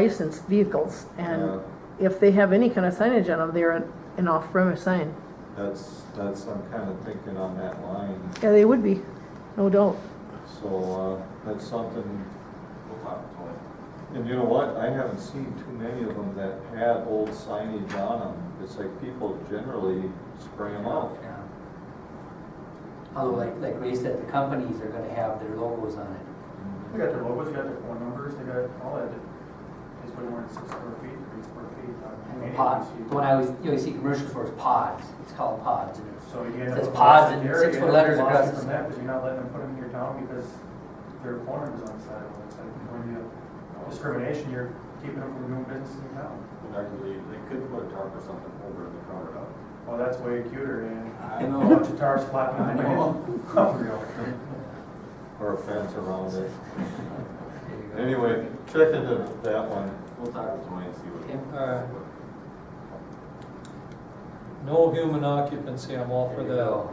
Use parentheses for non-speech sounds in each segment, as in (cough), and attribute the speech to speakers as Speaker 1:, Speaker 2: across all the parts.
Speaker 1: licensed vehicles,
Speaker 2: Yeah,
Speaker 1: and if they have any kind of signage on them, they're an- an off-premise sign.
Speaker 2: That's, that's, I'm kind of thinking on that line,
Speaker 1: Yeah, they would be, no doubt.
Speaker 2: so, uh, that's something. And you know what, I haven't seen too many of them that had old signage on them, it's like people generally spray them out.
Speaker 3: Yeah. Although, like, like Ray said, the companies are gonna have their logos on it.
Speaker 4: They got their logos, they got their phone numbers, they got all that. It's way more than six square feet, three square feet. uh,
Speaker 3: And the
Speaker 4: any of
Speaker 3: pod,
Speaker 4: these you-
Speaker 3: the one I always, you always see commercials for is pods, it's called pods, and it's,
Speaker 4: So you end up.
Speaker 3: says
Speaker 4: with
Speaker 3: pods
Speaker 4: lots of
Speaker 3: and
Speaker 4: area,
Speaker 3: six-foot
Speaker 4: you end up
Speaker 3: letters
Speaker 4: with lots
Speaker 3: across
Speaker 4: From
Speaker 3: the-
Speaker 4: that, because you're not letting them put them in your town because their phone numbers on the side of it, it's like, when you, discrimination, you're keeping them from doing business in your town.
Speaker 5: Arguably, they could put a tarp or something over the counter up.
Speaker 4: Well, that's way cuter, and
Speaker 5: I
Speaker 4: a bunch of tires flapping in the wind.
Speaker 2: Or a fence around it.
Speaker 3: there you go.
Speaker 2: Anyway, check into that one.
Speaker 5: We'll talk to Tony and see
Speaker 3: Okay.
Speaker 5: what.
Speaker 6: Alright. No human occupancy, I'm all for
Speaker 3: There you go.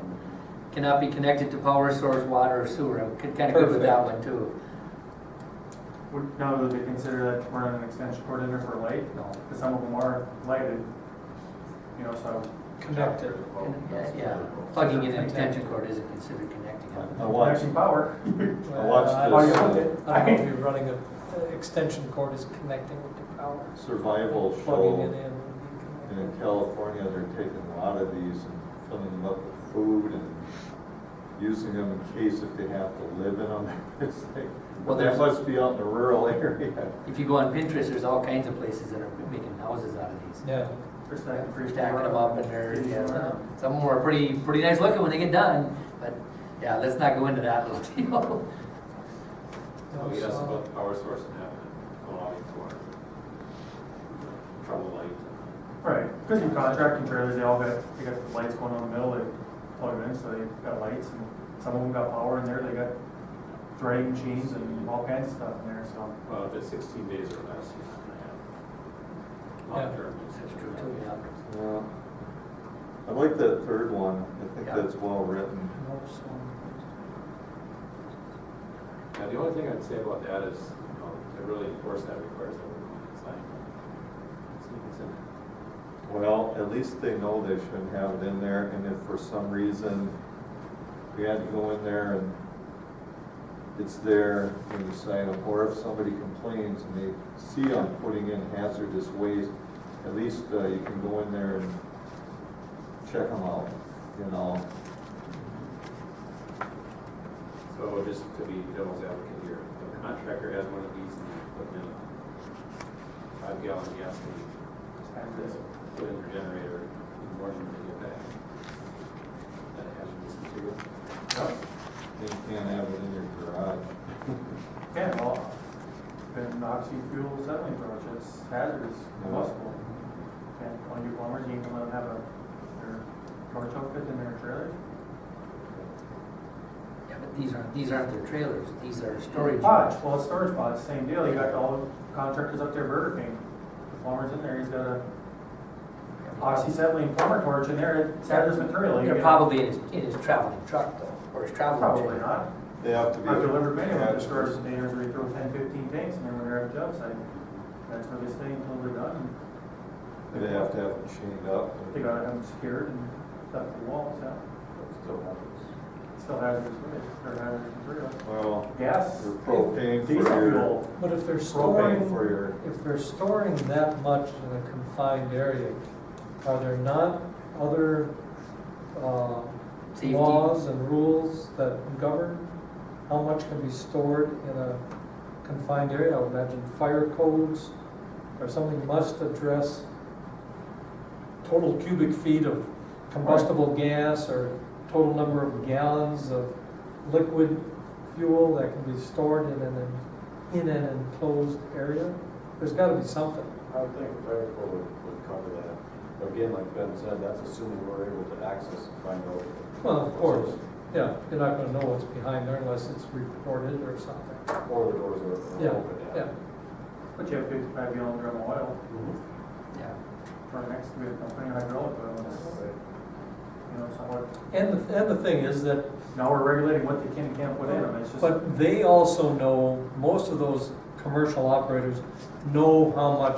Speaker 6: that.
Speaker 3: Cannot be connected to power source, water, or sewer, I'm kinda good with that one too.
Speaker 4: Would, now, would they consider that running an extension cord in there for light?
Speaker 3: No.
Speaker 4: Because some of them are lighted, you know, so.
Speaker 6: Connected.
Speaker 3: And, uh, Yeah, plugging in an extension cord isn't considered connecting.
Speaker 2: I watched,
Speaker 4: Connection power.
Speaker 2: I watched
Speaker 6: Uh, I
Speaker 4: Oh, you
Speaker 2: this
Speaker 4: want
Speaker 2: uh,
Speaker 4: it?
Speaker 6: I don't know if you're running a, an extension cord is connecting with the power.
Speaker 2: survival
Speaker 6: Plugging it
Speaker 2: show,
Speaker 6: in would be
Speaker 2: and in
Speaker 6: connected.
Speaker 2: California, they're taking a lot of these and filling them up with food and using them in case if they have to live in them. (laughs) It's like,
Speaker 3: Well,
Speaker 2: Well, that
Speaker 3: there's-
Speaker 2: must be out in the rural (laughs) area.
Speaker 3: If you go on Pinterest, there's all kinds of places that are making houses out of these.
Speaker 6: Yeah,
Speaker 4: First
Speaker 3: Like,
Speaker 4: act,
Speaker 3: We're
Speaker 4: first
Speaker 3: stacking them up and they're,
Speaker 4: Yeah.
Speaker 3: yeah, some- some of them are pretty, pretty nice looking when they get done, but yeah, let's not go into that little (laughs) deal.
Speaker 2: Oh,
Speaker 5: So we asked about the power source and that, and allowing for trouble light.
Speaker 4: Right, because in contracting trailers, they all got, they got the lights going on in the middle, they plug it in, so they got lights, and some of them got power in there, they got threading machines and all kinds of stuff in there, so.
Speaker 5: Well, if it's sixteen days or less, you're not gonna have.
Speaker 6: Yeah.
Speaker 5: Long term.
Speaker 3: That's true too, yeah.
Speaker 2: Yeah. I like that third one. I think
Speaker 3: Yeah.
Speaker 2: that's well written.
Speaker 6: Nope, so-
Speaker 5: Now, the only thing I'd say about that is, you know, to really enforce that requires that we're it's like, it's even
Speaker 2: Well, at least they know they shouldn't have it in there, and if for some reason we had to go in there and it's there, we decide, or if somebody complains and they see I'm putting in hazardous waste, at least uh, you can go in there and check them out, you know?
Speaker 5: So just to be devil's advocate here, if the contractor has one of these and they put in a five gallon gas tank, just have this, put in their generator in the morning when they get back. That hazardous material.
Speaker 4: yeah.
Speaker 2: You can't have it in your garage.
Speaker 4: Yeah, well, been oxy fuel settling approach, it's hazardous, combustible. And one of your plumbers, you can let them have a, their torch outfit in their trailer.
Speaker 3: Yeah, but these aren't, these aren't their trailers, these are storage.
Speaker 4: Pods, well, it's storage pods, same deal, you got all the contractors up there Burger King. The plumber's in there, he's got a oxyacetylene plumber torch in there, it's hazardous material. you
Speaker 3: They're
Speaker 4: get-
Speaker 3: probably in his, in his traveling truck though, or his traveling trailer.
Speaker 4: Probably not.
Speaker 2: They have to be.
Speaker 4: I've delivered many of them,
Speaker 2: Yeah.
Speaker 4: just where they usually throw 10, 15 tanks and then when they're at the job site, that's where they stay until they're done.
Speaker 2: They have to have it chained up. and-
Speaker 4: They gotta have them secured and stuff to the walls, yeah.
Speaker 2: Still happens.
Speaker 4: Still hazardous waste, or hazardous material.
Speaker 2: Well,
Speaker 4: Gas,
Speaker 2: you're propane for
Speaker 4: diesel
Speaker 2: your,
Speaker 4: fuel,
Speaker 6: But if they're storing.
Speaker 2: propane for your
Speaker 6: If they're storing that much in a confined area, are there not other uh,
Speaker 3: Safety.
Speaker 6: laws and rules that govern how much can be stored in a confined area? I would imagine fire codes or something must address total cubic feet of combustible gas or total number of gallons of liquid fuel that can be stored in an, in an enclosed area? There's gotta be something.
Speaker 7: I would think fire code would, would cover that. But again, like Ben said, that's assuming we're able to access and find out.
Speaker 6: Well, of course, yeah, you're not gonna know what's behind there unless it's reported or something.
Speaker 7: Or the doors are-
Speaker 6: Yeah,
Speaker 7: are open.
Speaker 6: yeah.
Speaker 4: but you have fifty-five gallon drum of oil
Speaker 3: Yeah.
Speaker 4: for an excavator company, hydraulic oil, and it's, you know, somewhat.
Speaker 6: And, the- and the thing is that
Speaker 4: Now we're regulating what they can and can't put in them, it's just.
Speaker 6: But they also know, most of those commercial operators know how much